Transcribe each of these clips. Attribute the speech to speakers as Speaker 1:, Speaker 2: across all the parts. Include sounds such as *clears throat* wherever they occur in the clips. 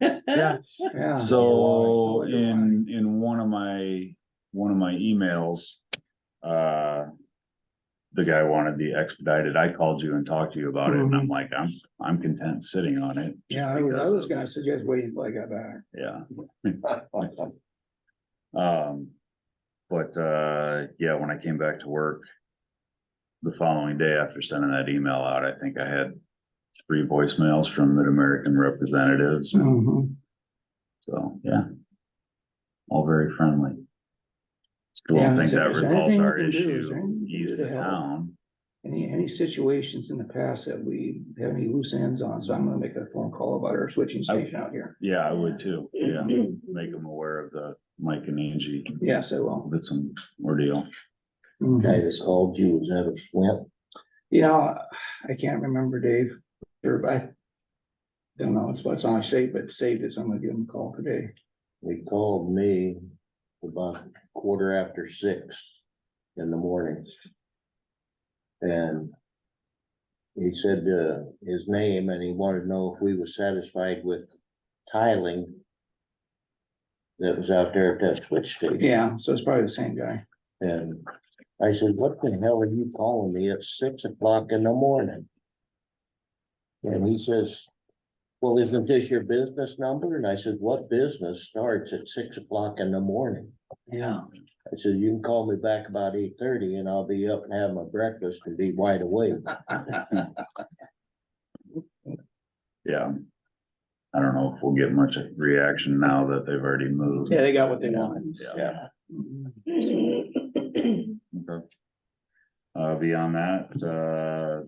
Speaker 1: Yeah.
Speaker 2: *laughs* Yeah.
Speaker 1: So in, in one of my, one of my emails, uh. The guy wanted the expedited, I called you and talked to you about it and I'm like, I'm, I'm content sitting on it.
Speaker 2: Mm-hmm.
Speaker 1: just
Speaker 2: Yeah, I was, I
Speaker 1: because
Speaker 2: was
Speaker 1: of-
Speaker 2: gonna suggest waiting till I got back.
Speaker 1: Yeah, um, but, uh, yeah, when I came back to work. The following day after sending that email out, I think I had three voicemails from Mid-American representatives,
Speaker 2: Mhm.
Speaker 1: so, yeah. All very friendly. Still
Speaker 2: Yeah,
Speaker 1: don't think
Speaker 2: is there-
Speaker 1: that
Speaker 2: is there
Speaker 1: resolves
Speaker 2: anything we
Speaker 1: our
Speaker 2: can do? Is there
Speaker 1: issue,
Speaker 2: anything we can
Speaker 1: ease
Speaker 2: do
Speaker 1: the
Speaker 2: to help?
Speaker 1: town,
Speaker 2: Any, any situations in the past that we have any loose ends on, so I'm gonna make a phone call about our switching
Speaker 1: I-
Speaker 2: station out here.
Speaker 1: yeah, I would too,
Speaker 2: *clears throat*
Speaker 1: yeah, make them aware of the Mike and Angie,
Speaker 2: Yes, I will.
Speaker 1: that's an ordeal. Mm-hmm.
Speaker 2: Mhm.
Speaker 3: Guy just called you, was that a Swint?
Speaker 2: You know, I can't remember, Dave, or I. Don't know, it's what's on save, but saved it, so I'm gonna give him a call today.
Speaker 3: He called me about quarter after six in the morning. And he said, uh, his name and he wanted to know if we was satisfied with tiling that was out there at that switch station.
Speaker 2: Yeah, so it's probably the same guy.
Speaker 3: And I said, what the hell are you calling me at six o'clock in the morning? And he says, well, isn't this your business number? And I said, what business starts at six o'clock in the morning?
Speaker 2: Yeah.
Speaker 3: I said, you can call me back about eight thirty and I'll be up and have my breakfast and be wide awake.
Speaker 1: Yeah. I don't know if we'll get much reaction now that they've already moved.
Speaker 2: Yeah, they got what they wanted.
Speaker 1: Yeah.
Speaker 2: Mhm.
Speaker 1: Okay. Uh, beyond that, uh,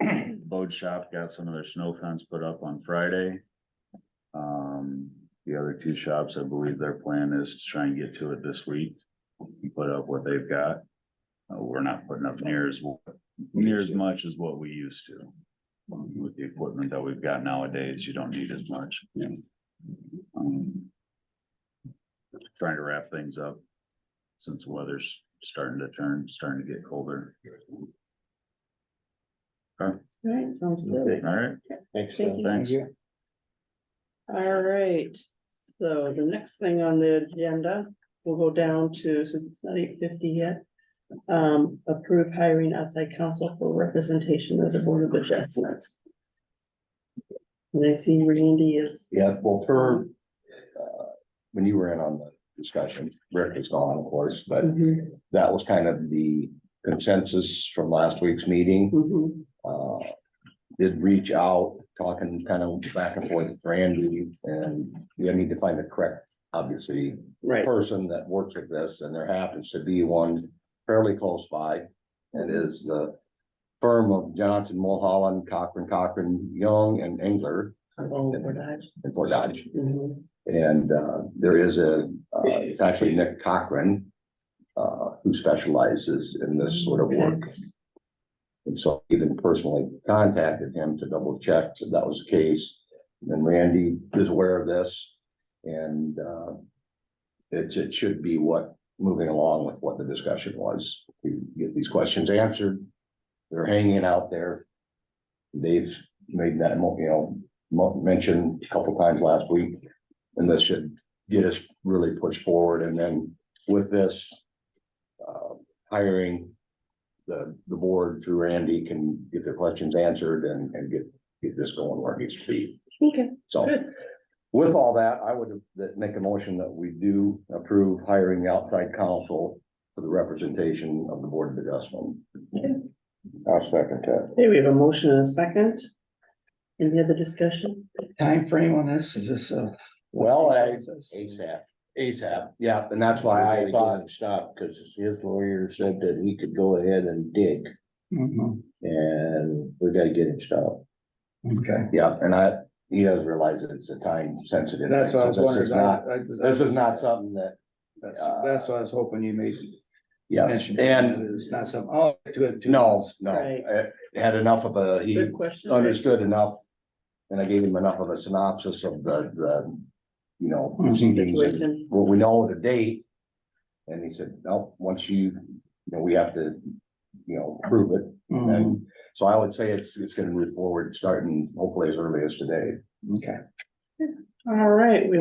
Speaker 1: *clears throat* Bode Shop got some of their snow fence put up on Friday. Um, the other two shops, I believe their plan is to try and get to it this week, and put up what they've got. Uh, we're not putting up near as, near as much as what we used to. With the equipment that we've got nowadays, you don't need as much. Um, Trying to wrap things up since the weather's starting to turn, starting to get colder.
Speaker 4: Right, sounds good.
Speaker 1: All right,
Speaker 3: Thanks,
Speaker 4: Thank
Speaker 3: Phil.
Speaker 4: you.
Speaker 1: thanks.
Speaker 2: you.
Speaker 4: All right, so the next thing on the agenda, we'll go down to, since it's not eight fifty yet. Um, approve hiring outside counsel for representation of the Board of Adjustments. And I see Randy is,
Speaker 3: Yeah, well, for, uh, when you were in on the discussion, Rick is gone, of course, but
Speaker 4: Mhm,
Speaker 3: that was kind of the consensus from last week's meeting.
Speaker 4: mhm,
Speaker 3: uh, did reach out, talking kind of back and forth with Randy, and we need to find the correct, obviously,
Speaker 4: right,
Speaker 3: person that works with this, and there happens to be one fairly close by. It is the firm of Johnson, Mulholland, Cochran, Cochran, Young, and Engler
Speaker 4: along with that.
Speaker 3: in Fort Dodge.
Speaker 4: Mhm,
Speaker 3: And uh, there is a, uh, it's actually Nick Cochran, uh, who specializes in this sort of work. And so I even personally contacted him to double check that that was the case. And Randy is aware of this and uh, it's, it should be what, moving along with what the discussion was, to get these questions answered. They're hanging out there. They've made that, mo- you know, mo- mentioned a couple times last week. And this should get us really pushed forward. And then with this uh, hiring, the, the board through Randy can get their questions answered and, and get, get this going where it needs to be.
Speaker 4: Okay,
Speaker 3: So
Speaker 4: good,
Speaker 3: with all that, I would that make a motion that we do approve hiring outside counsel for the representation of the Board of Adjustment. I'll second that.
Speaker 4: hey, we have a motion and a second. Any other discussion?
Speaker 2: Time frame on this, is this a?
Speaker 3: Well, I- ASAP. ASAP, yeah, and that's why I thought. Stop, because his lawyer said that he could go ahead and dig,
Speaker 2: Mhm,
Speaker 3: and we gotta get him stopped.
Speaker 2: Okay.
Speaker 3: Yeah, and I, he doesn't realize that it's a time sensitive.
Speaker 2: That's what I was wondering. I- I-
Speaker 3: This is not something that,
Speaker 2: That's, that's what I was hoping you made.
Speaker 3: yes,
Speaker 2: mention.
Speaker 3: and
Speaker 2: It's not some, oh, to it. to-
Speaker 3: No, no,
Speaker 4: Right.
Speaker 3: I had enough of a, he
Speaker 4: Good question.
Speaker 3: understood enough. And I gave him enough of a synopsis of the, the, you know,
Speaker 2: Mhm.
Speaker 3: proceedings, and
Speaker 4: Situation.
Speaker 3: what we know, the date. And he said, no, once you, you know, we have to, you know, prove it.
Speaker 2: Mhm,
Speaker 3: And so I would say it's, it's gonna move forward, starting hopefully as early as today.
Speaker 2: Okay.
Speaker 4: All right, we